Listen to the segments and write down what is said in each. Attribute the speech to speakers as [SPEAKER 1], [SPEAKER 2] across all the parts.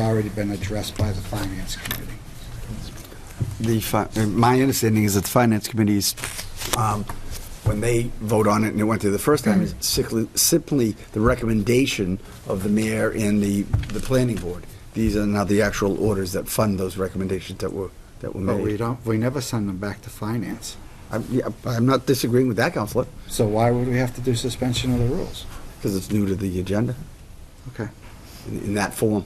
[SPEAKER 1] already been addressed by the Finance Committee.
[SPEAKER 2] The, fi- uh, my understanding is that the Finance Committee is, um, when they vote on it, and it went through the first time,
[SPEAKER 1] Mm-hmm.
[SPEAKER 2] is sickly- simply the recommendation of the mayor and the, the planning board. These are now the actual orders that fund those recommendations that were, that were
[SPEAKER 1] But we
[SPEAKER 2] made.
[SPEAKER 1] don't, we never send them back to Finance.
[SPEAKER 2] I'm, yeah, I'm not disagreeing with that, Counselor,
[SPEAKER 1] So why would we have to do suspension of the rules?
[SPEAKER 2] because it's new to the agenda
[SPEAKER 1] Okay.
[SPEAKER 2] in in that form.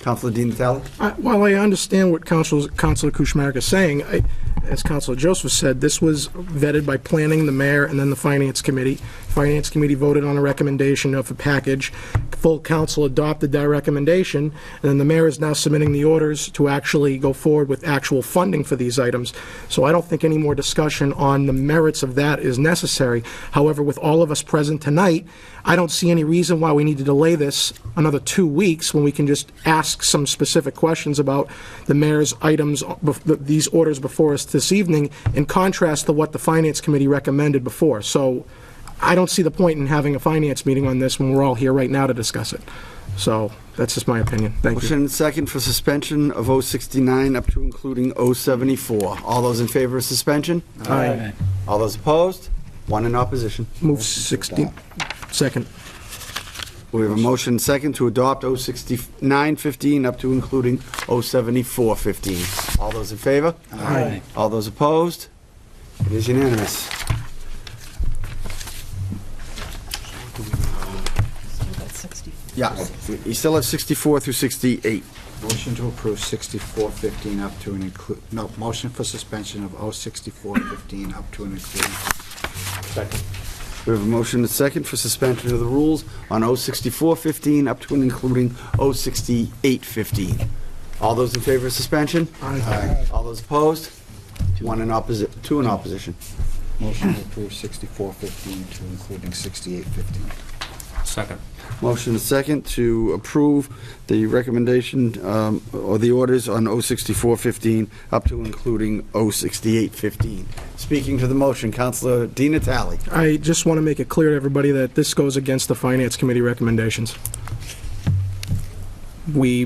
[SPEAKER 2] Counselor Dean Natale?
[SPEAKER 3] I- While I understand what Council- Councilor Kuchmarek is saying, I- as Councilor Joseph said, this was vetted by planning, the mayor, and then the finance committee. Finance committee voted on a recommendation of a package. Full council adopted that recommendation, and then the mayor is now submitting the orders to actually go forward with actual funding for these items. So I don't think any more discussion on the merits of that is necessary. However, with all of us present tonight, I don't see any reason why we need to delay this another two weeks when we can just ask some specific questions about the mayor's items, uh, bef- th- these orders before us this evening, in contrast to what the Finance Committee recommended before. So I don't see the point in having a finance meeting on this when we're all here right now to discuss it. So that's just my opinion. Thank you.
[SPEAKER 2] Motion and second for suspension of 069 up to including 074. All those in favor of suspension?
[SPEAKER 3] Aye.
[SPEAKER 2] All those opposed? One in opposition.
[SPEAKER 3] Move 16, second.
[SPEAKER 2] We have a motion and second to adopt 06915 up to including 07415. All those in favor?
[SPEAKER 3] Aye.
[SPEAKER 2] All those opposed? It is unanimous. Yeah, you still have 64 through 68.
[SPEAKER 1] Motion to approve 6415 up to and include, no, motion for suspension of 06415 up to and including.
[SPEAKER 2] We have a motion and second for suspension of the rules on 06415 up to and including 06815. All those in favor of suspension?
[SPEAKER 3] Aye.
[SPEAKER 2] All those opposed? One in opposi, two in opposition.
[SPEAKER 1] Motion to approve 6415 to including 6815.
[SPEAKER 4] Second.
[SPEAKER 2] Motion and second to approve the recommendation um, or the orders on 06415 up to and including 06815. Speaking to the motion, Counselor Dean Natale.
[SPEAKER 3] I just want to make it clear to everybody that this goes against the Finance Committee recommendations. We,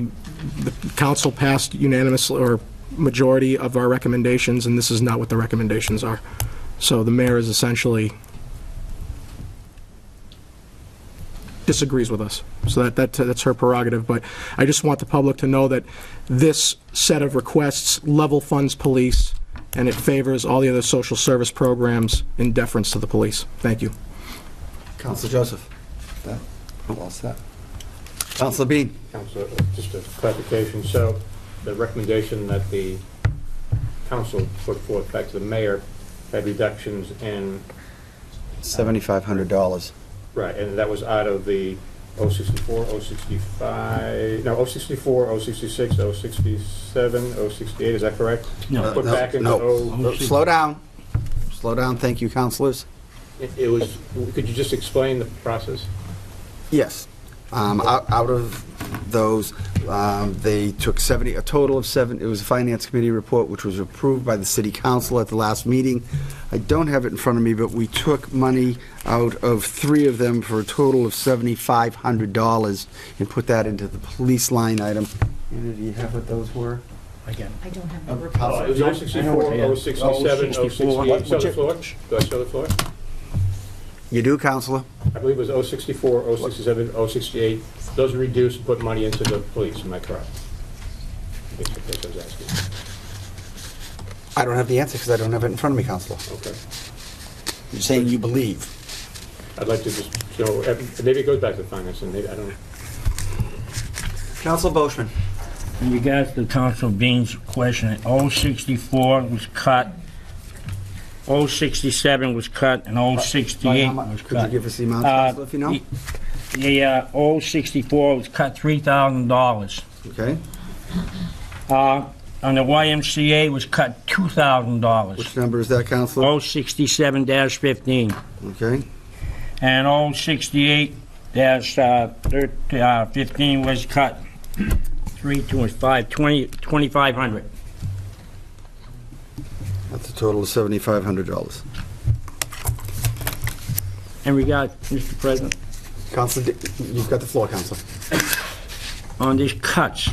[SPEAKER 3] the council passed unanimously, or majority of our recommendations, and this is not what the recommendations are. So the mayor is essentially disagrees with us. So that, that, that's her prerogative, but I just want the public to know that this set of requests level funds police, and it favors all the other social service programs in deference to the police. Thank you.
[SPEAKER 2] Counselor Joseph.
[SPEAKER 1] That, all set?
[SPEAKER 2] Counselor Bean.
[SPEAKER 5] Council, uh, just a clarification, so the recommendation that the council put forth back to the mayor had reductions in,
[SPEAKER 2] $7,500.
[SPEAKER 5] right, and that was out of the 064, 065, no, 064, 066, 067, 068, is that correct?
[SPEAKER 2] Uh,
[SPEAKER 5] Put
[SPEAKER 2] no,
[SPEAKER 5] back into
[SPEAKER 2] no.
[SPEAKER 5] 0,
[SPEAKER 2] Oh, Slow down. Slow down, thank you, counselors.
[SPEAKER 5] it- it was, could you just explain the process?
[SPEAKER 2] Yes. Um, Out out of those, um, they took 70, a total of seven, it was a Finance Committee report, which was approved by the City Council at the last meeting. I don't have it in front of me, but we took money out of three of them for a total of $7,500 and put that into the police line item. Anna, do you have what those were?
[SPEAKER 6] I don't have the
[SPEAKER 2] Um,
[SPEAKER 6] report.
[SPEAKER 5] It was 064,
[SPEAKER 2] Oh,
[SPEAKER 5] 067, 068, show the floor, do I show the floor?
[SPEAKER 2] You do, Counselor?
[SPEAKER 5] I believe it was 064, 067, 068. Those are reduced, and put money into the police, am I correct? That's what I was asking.
[SPEAKER 2] I don't have the answer because I don't have it in front of me, Counselor.
[SPEAKER 5] Okay.
[SPEAKER 2] You're saying you believe.
[SPEAKER 5] I'd like to just, so, eh, maybe it goes back to finance, and maybe, I don't,
[SPEAKER 2] Counselor Boishman.
[SPEAKER 7] In regards to Council Bean's question, 064 was cut, 067 was cut, and 068
[SPEAKER 2] By how much?
[SPEAKER 7] was cut.
[SPEAKER 2] Could you give us the amount,
[SPEAKER 7] Uh,
[SPEAKER 2] Counselor, if you know?
[SPEAKER 7] The uh, 064 was cut $3,000.
[SPEAKER 2] Okay,
[SPEAKER 7] Uh, On the YMCA was cut $2,000.
[SPEAKER 2] which number is that, Counselor?
[SPEAKER 7] 067-15
[SPEAKER 2] Okay,
[SPEAKER 7] and uh, 068-15 was cut, 3, 2, 5, 20 2,500.
[SPEAKER 2] that's a total of seventy-five hundred dollars.
[SPEAKER 7] In regard, Mr. President,
[SPEAKER 2] Counselor, Di- you've got the floor, Counselor.
[SPEAKER 7] on these cuts,